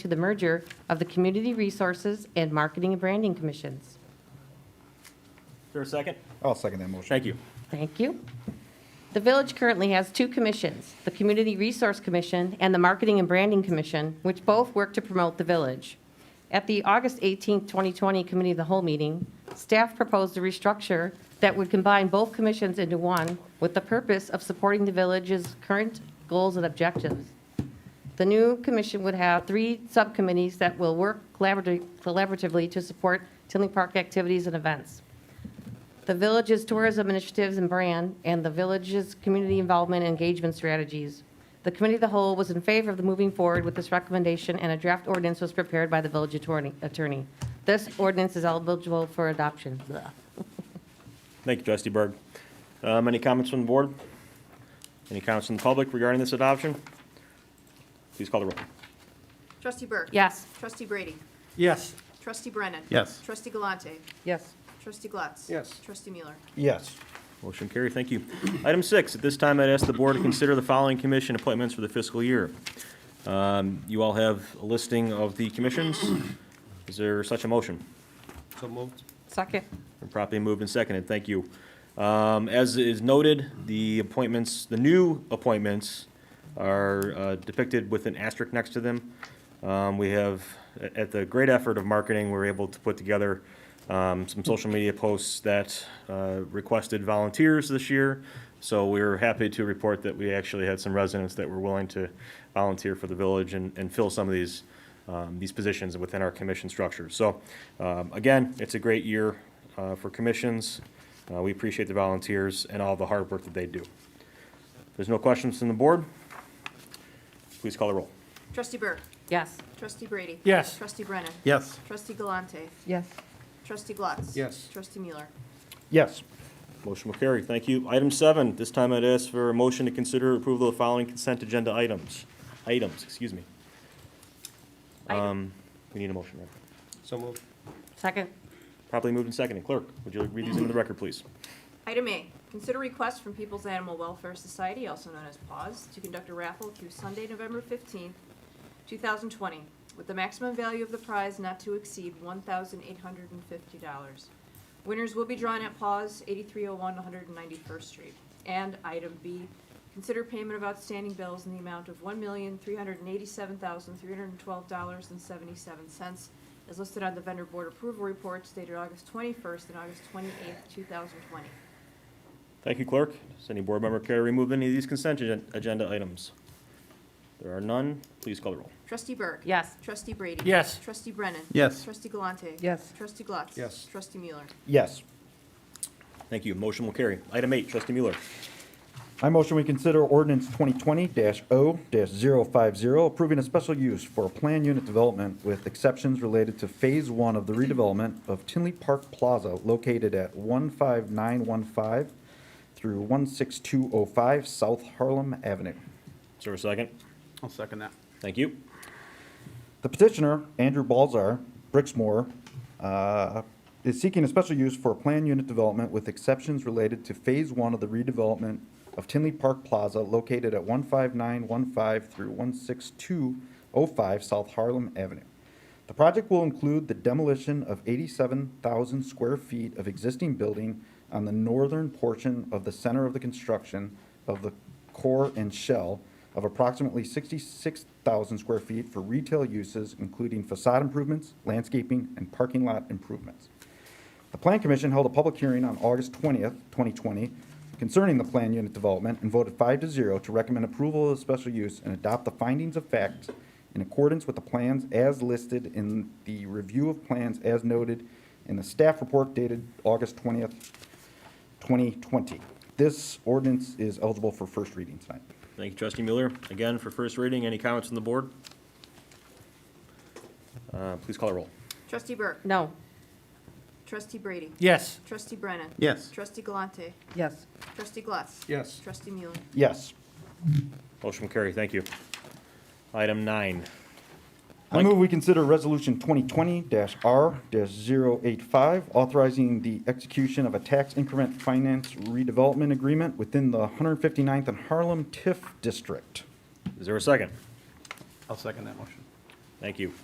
to the merger of the Community Resources and Marketing and Branding Commissions. Is there a second? I'll second that motion. Thank you. Thank you. The village currently has two commissions, the Community Resource Commission and the Marketing and Branding Commission, which both work to promote the village. At the August 18, 2020 Committee of the Whole meeting, staff proposed a restructure that would combine both commissions into one with the purpose of supporting the village's current goals and objectives. The new commission would have three subcommittees that will work collaborati- collaboratively to support Tinley Park activities and events the village's tourism initiatives and brand, and the village's community involvement and engagement strategies. The committee of the whole was in favor of the moving forward with this recommendation, and a draft ordinance was prepared by the village attorney- attorney. This ordinance is eligible for adoption. Blah. Thank you, trustee Berg. Um, Any comments from the board? Any comments from the public regarding this adoption? Please call the roll. Trustee Burke. Yes. Trustee Brady. Yes. Trustee Brennan. Yes. Trustee Galante. Yes. Trustee Glatz. Yes. Trustee Mueller. Yes. Motion carried, thank you. Item six, at this time, I'd ask the board to consider the following commission appointments for the fiscal year. Um, You all have a listing of the commissions. Is there such a motion? So moved. Second. Been Properly moved and seconded, thank you. Um, As is noted, the appointments, the new appointments are uh, depicted with an asterisk next to them. Um, We have, a- at the great effort of marketing, we were able to put together um, some social media posts that uh, requested volunteers this year. So we were happy to report that we actually had some residents that were willing to volunteer for the village and and fill some of these um, these positions within our commission structure. So, um, again, it's a great year uh, for commissions. Uh, We appreciate the volunteers and all the hard work that they do. If there's no questions from the board, please call the roll. Trustee Burke. Yes. Trustee Brady. Yes. Trustee Brennan. Yes. Trustee Galante. Yes. Trustee Glatz. Yes. Trustee Mueller. Yes. Motion will carry. Thank you. Item seven, this time I'd ask for a motion to consider approval of the following consent agenda items. Items, excuse me. Item. Um, We need a motion, right? So moved. Second. Properly moved and seconded. Clerk, would you read these into the record, please? Item A, consider request from People's Animal Welfare Society, also known as PAWS, to conduct a raffle through Sunday, November 15th, 2020, with the maximum value of the prize not to exceed $1,850. Winners will be drawn at PAWS, 8301 191st Street. And item B, consider payment of outstanding bills in the amount of $1,387,312.77 as listed on the vendor board approval reports dated August 21st and August 28th, 2020. Thank you, Clerk. Does any board member care to remove any of these consent agen- agenda items? There are none. Please call the roll. Trustee Burke. Yes. Trustee Brady. Yes. Trustee Brennan. Yes. Trustee Galante. Yes. Trustee Glatz. Yes. Trustee Mueller. Yes. Thank you. Motion will carry. Item eight, trustee Mueller. I motion we consider ordinance 2020-0-050, approving a special use for plan unit development with exceptions related to Phase 1 of the redevelopment of Tinley Park Plaza located at 15915 through 16205 South Harlem Avenue. Is there a second? I'll second that. Thank you. The petitioner, Andrew Balzar, Brixmore, uh, is seeking a special use for a planned unit development with exceptions related to Phase One of the redevelopment of Tinley Park Plaza located at 15915 through 16205 South Harlem Avenue. The project will include the demolition of 87,000 square feet of existing building on the northern portion of the center of the construction of the core and shell of approximately 66,000 square feet for retail uses, including facade improvements, landscaping, and parking lot improvements. The Plan Commission held a public hearing on August 20th, 2020, concerning the plan unit development and voted five to zero to recommend approval of the special use and adopt the findings of fact in accordance with the plans as listed in the review of plans as noted in the staff report dated August 20th, 2020. This ordinance is eligible for first reading tonight. Thank you, trustee Mueller. Again, for first reading, any comments from the board? Uh, Please call the roll. Trustee Burke. No. Trustee Brady. Yes. Trustee Brennan. Yes. Trustee Galante. Yes. Trustee Glatz. Yes. Trustee Mueller. Yes. Motion will carry. Thank you. Item nine. I move we consider Resolution 2020-R-085, authorizing the execution of a tax increment finance redevelopment agreement within the 159th and Harlem TIF District. Is there a second? I'll second that motion. Thank you.